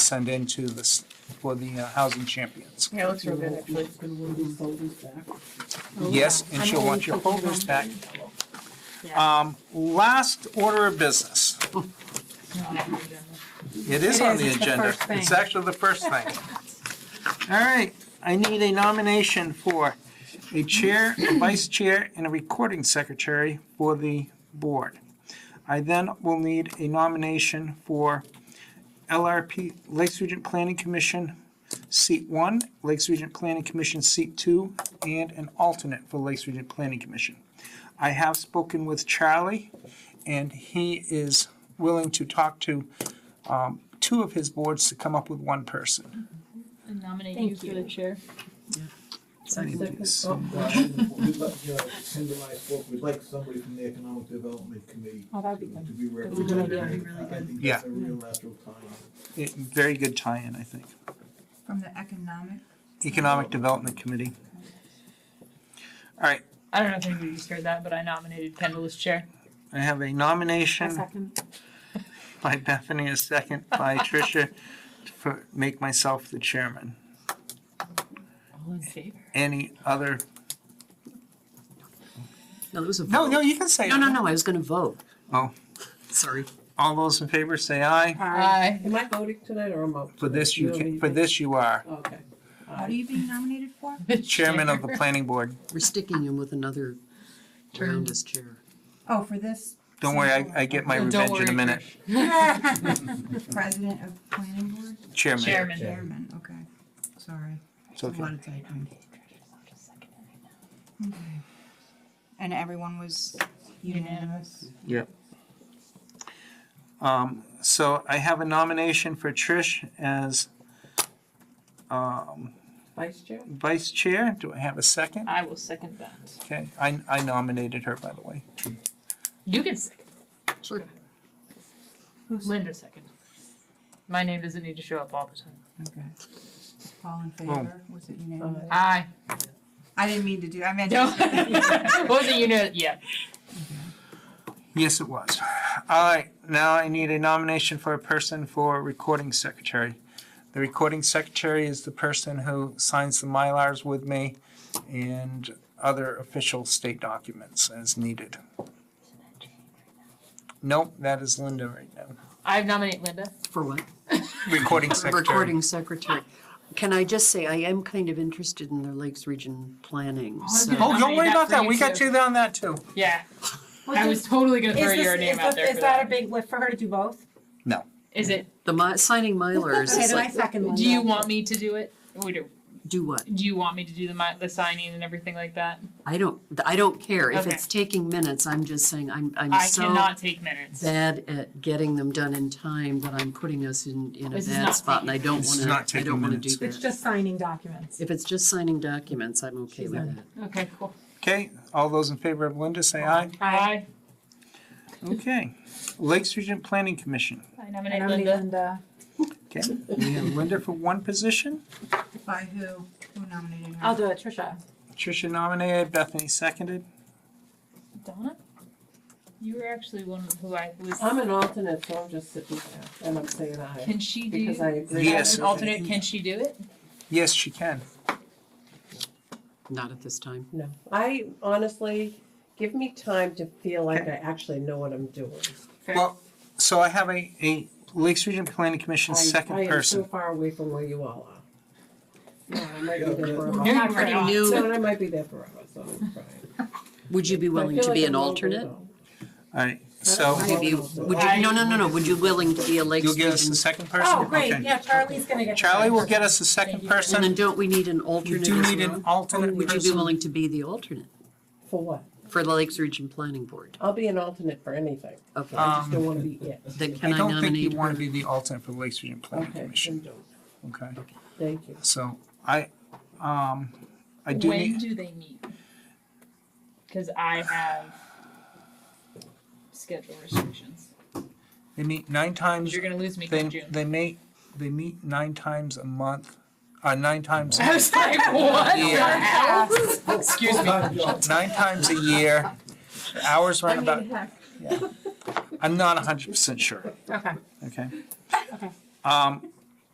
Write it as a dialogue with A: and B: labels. A: send in to the, s- for the uh, Housing Champions.
B: Yeah, it looks real good, actually.
A: Yes, and she'll want your folders back. Um, last order of business. It is
C: It
A: on
C: is,
A: the
C: it's the
A: agenda.
C: first thing.
A: It's actually the first thing. All right, I need a nomination for a chair, a vice chair, and a recording secretary for the board. I then will need a nomination for LRP, Lakes Region Planning Commission, seat one, Lakes Region Planning Commission, seat two, and an alternate for Lakes Region Planning Commission. I have spoken with Charlie, and he is willing to talk to um, two of his boards to come up with one person.
B: Nominate
C: you Thank for the you.
B: chair.
D: Cindy and I spoke, we'd like somebody from the Economic Development Committee
C: Oh, that'd
D: to
C: be good.
D: be
C: That'd be
D: represented. I think
A: Yeah.
D: that's a real natural time.
A: It- Very good tie-in, I think.
E: From the economic,
A: Economic Development Committee. All right,
B: I don't know if anybody just heard that, but I nominated Kendall as chair.
A: I have a
C: A
A: nomination
C: second.
A: by Bethany, a second by Tricia, to for- make myself the chairman.
B: All in favor?
A: Any other,
F: No, there was a vote.
A: no, no, you can say.
F: No, no, no, I was gonna vote.
A: Oh.
F: Sorry.
A: All those in favor say aye.
B: Aye.
G: Am I voting tonight or am I?
A: For this you
G: don't
A: can,
G: need
A: for
G: me?
A: this you are
G: Okay.
E: what are you being nominated for?
A: chairman of the planning board.
F: We're sticking him with another
B: Turn.
F: round as chair.
E: Oh, for this.
A: Don't worry, I, I get my
B: Oh, don't
A: revenge in a
B: worry,
A: minute.
E: President of planning board?
A: Chairman.
B: Chairman.
E: Chairman, okay, sorry.
A: It's okay.
E: A lot of typing. Okay. And everyone was unanimous?
A: Um, so I have a nomination for Trish as, um,
G: Vice Chair?
A: vice chair. Do I have a second?
B: I will second that.
A: Okay, I, I nominated her, by the way.
B: You can second.
F: Sure.
B: Linda second. My name doesn't need to show up all the time.
E: Okay. All in favor? Was it unanimous?
G: Uh,
B: Aye.
E: I didn't mean to do, I meant.
B: No. Wasn't you know, yeah.
A: Yes, it was. All right, now I need a nomination for a person for recording secretary. The recording secretary is the person who signs the Mylars with me and other official state documents as needed. Nope, that is Linda right now.
B: I nominate Linda.
F: For what?
A: Recording secretary.
F: Recording secretary. Can I just say, I am kind of interested in the Lakes Region planning, so.
A: Oh, don't worry about that. We got you on that too.
B: Yeah. I was totally gonna throw your name out there for that.
C: big lift for her to do both?
B: Is it,
F: The mi- signing milers
C: Okay,
F: is
C: then I
F: like,
C: second one.
B: do you want me to do it? We do,
F: do what?
B: do you want me to do the mi- the signing and everything like that?
F: I don't, I don't care. If
B: Okay.
F: it's taking minutes, I'm just saying, I'm, I'm
B: I
F: so
B: cannot take minutes.
F: bad at getting them done in time that I'm putting us in, in a
B: This is
F: bad
B: not
F: spot and I don't
A: This is
F: wanna,
A: not
F: I
A: taking
F: don't wanna do
A: minutes.
F: that.
C: It's just signing documents.
F: If it's just signing documents, I'm okay
C: She's
F: with
C: on.
F: that.
B: Okay, cool.
A: Okay, all those in favor of Linda, say aye.
B: Aye.
A: Okay. Lakes Region Planning Commission.
B: I
C: And
B: nominate
C: I'm the
B: Linda.
C: Linda.
A: Okay, we have Linda for one position.
E: By who? Who nominated her?
C: I'll do it, Trisha.
A: Tricia nominated, Bethany seconded.
B: Donna? You were actually one of who I was.
G: I'm an alternate, so I'm just sitting there and I'm saying aye.
B: Can she do,
G: Because I agree.
A: Yes.
B: as an alternate, can she do it?
A: Yes, she can.
F: Not at this time.
G: No, I honestly, give me time to feel like I actually know what I'm doing.
B: Fair.
A: Well, so I have a, a Lakes Region Planning Commission
G: I- I
A: second
G: am so
A: person.
G: far away from where you all are. No, I might be there
B: No, you
G: forever.
B: were not.
F: new.
G: No, and I might be there forever, so I'm fine.
F: Would you be
G: But I
F: willing
G: feel
F: to
G: like
F: be
G: I'm
F: an
G: a little
F: alternate?
G: weirdo.
A: All right, so
G: I-
F: Would you, would you, no, no, no, no, would you willing to be a Lakes
A: you'll get us
F: Region?
A: the second person? Okay.
C: Oh, yeah, Charlie's gonna get.
A: Charlie will get us the second
F: And then
A: person.
F: don't we need an
A: We
F: alternate
A: do
F: as
A: need an
F: well?
A: alternate
F: Would you be
A: person.
F: willing to be the alternate
G: For what?
F: for the Lakes Region Planning Board?
G: I'll be an alternate for anything.
F: Okay,
G: I just don't
A: Um,
G: wanna be it.
F: then
A: I
F: can I
A: don't think you
F: nominate
A: want to
F: her?
A: be the alternate for Lakes Region Planning
G: Okay, then
A: Commission,
G: don't.
A: okay?
G: Thank you.
A: So I, um, I do
B: when
A: need,
B: do they meet? Because I have schedule restrictions.
A: they meet nine times,
B: You're gonna lose me
A: they,
B: in June.
A: they meet, they meet nine times a month, uh, nine times,
B: I was like, what?
A: Yeah.
B: Excuse me.
A: nine times a year. The Hours
C: I
A: run about, I'm not hundred percent sure,
C: Okay.
A: okay?
C: Okay.
A: Um,